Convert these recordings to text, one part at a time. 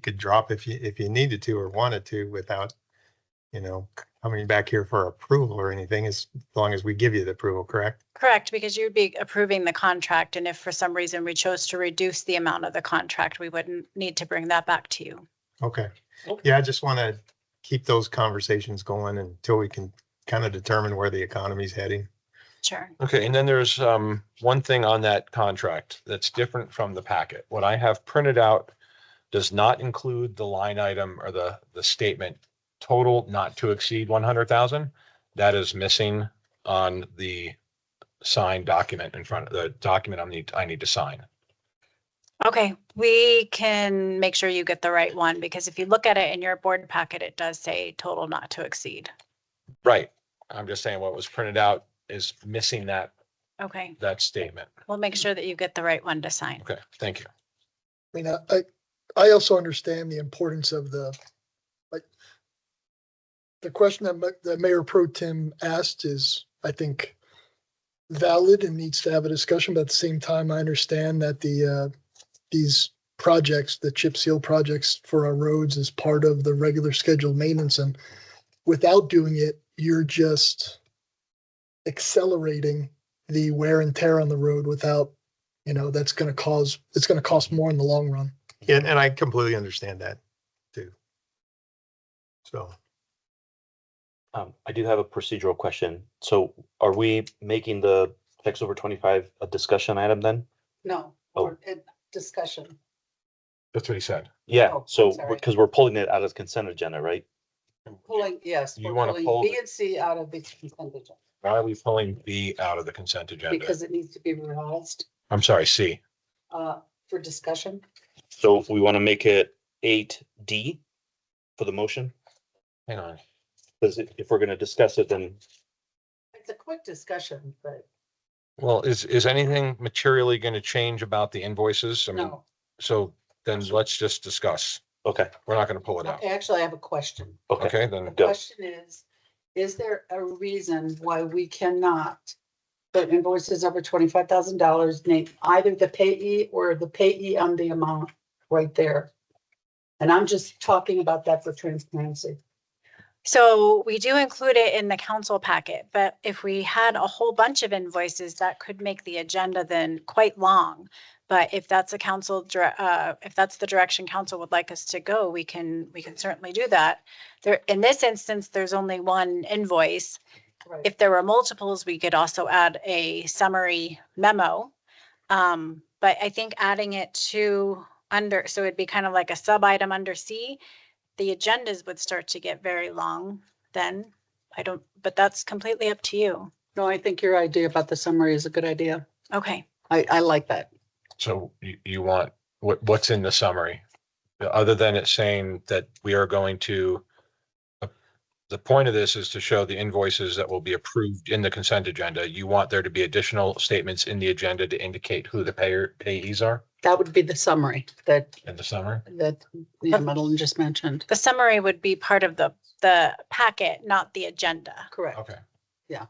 could drop if you, if you needed to or wanted to without, you know, coming back here for approval or anything, as long as we give you the approval, correct? Correct, because you'd be approving the contract, and if for some reason we chose to reduce the amount of the contract, we wouldn't need to bring that back to you. Okay. Okay. Yeah, I just want to keep those conversations going until we can kind of determine where the economy's heading. Sure. Okay, and then there's um one thing on that contract that's different from the packet. What I have printed out does not include the line item or the the statement total not to exceed one hundred thousand. That is missing on the signed document in front of the document I need I need to sign. Okay, we can make sure you get the right one, because if you look at it in your board packet, it does say total not to exceed. Right. I'm just saying what was printed out is missing that Okay, that statement. we'll make sure that you get the right one to sign. Okay, thank you. I mean, I, I- I also understand the importance of the, like, the question that, Ma- that Mayor Pro Tem asked is, I think, valid and needs to have a discussion, but at the same time, I understand that the, uh, these projects, the chip seal projects for our roads is part of the regular scheduled maintenance, and without doing it, you're just accelerating the wear and tear on the road without you know that's going to cause it's going to cost more in the long run And, and I completely understand that too. So, Um, I do have a procedural question. So are we making the checks over twenty-five a discussion item then? No, Oh. or uh, discussion. That's what he said. Yeah, Oh, so, sorry. because we're pulling it out of consent agenda, right? Pulling, yes. You we're wanna pulling pull B the- and C out of the consent agenda Why are we pulling B out of the consent agenda? because it needs to be revised I'm sorry, C. uh, for discussion. So we want to make it eight D for the motion, Hang on. because if we're going to discuss it, then It's a quick discussion, but Well, is, is anything materially going to change about the invoices? I mean, no. so then let's just discuss. okay, We're not going to pull it out. Okay, Actually, I have a question. okay. Okay, The then, Go. question is, is there a reason why we cannot put invoices over twenty-five thousand dollars, name either the payee or the payee on the amount right there? And I'm just talking about that for transparency. So we do include it in the council packet, but if we had a whole bunch of invoices, that could make the agenda then quite long. But if that's a council, dire- uh, if that's the direction council would like us to go, we can, we can certainly do that. There, in this instance, there's only one invoice. Right. If there were multiples, we could also add a summary memo. Um, but I think adding it to under, so it'd be kind of like a sub item under C. The agendas would start to get very long then. I don't, but that's completely up to you. No, I think your idea about the summary is a good idea. Okay. I, I like that. so you, you want, what, what's in the summary? Uh, Other than it saying that we are going to, uh, the point of this is to show the invoices that will be approved in the consent agenda. You want there to be additional statements in the agenda to indicate who the payer, payees are That would be the summary that, in the summary? that yeah, Madeline just mentioned. The summary would be part of the, the packet, not the agenda. Correct. Okay. That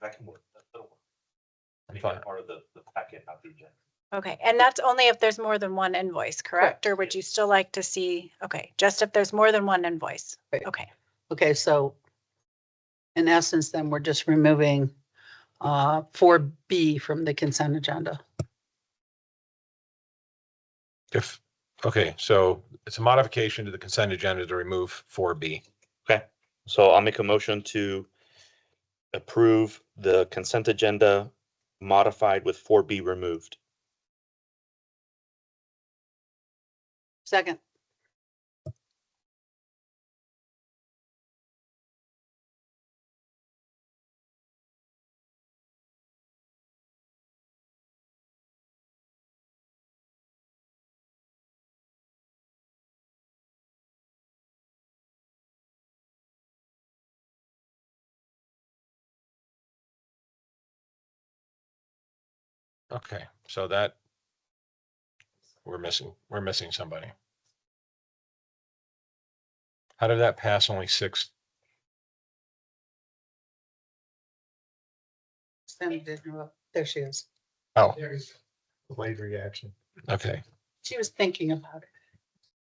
that can work. That- that'll work. I'm Make fine. that part of the, the packet, not the agenda. Okay. And that's only if there's more than one invoice, correct? Correct. Or would you still like to see, okay, just if there's more than one invoice? Right. Okay. Okay, so in essence, then we're just removing uh, four B from the consent agenda. If, okay, so it's a modification to the consent agenda to remove four B. So I'll make a motion to approve the consent agenda modified with four B removed. Second. Okay, so that we're missing, we're missing somebody. How did that pass only six? Sandy didn't know. There she is. Oh, late reaction. okay. She was thinking about it.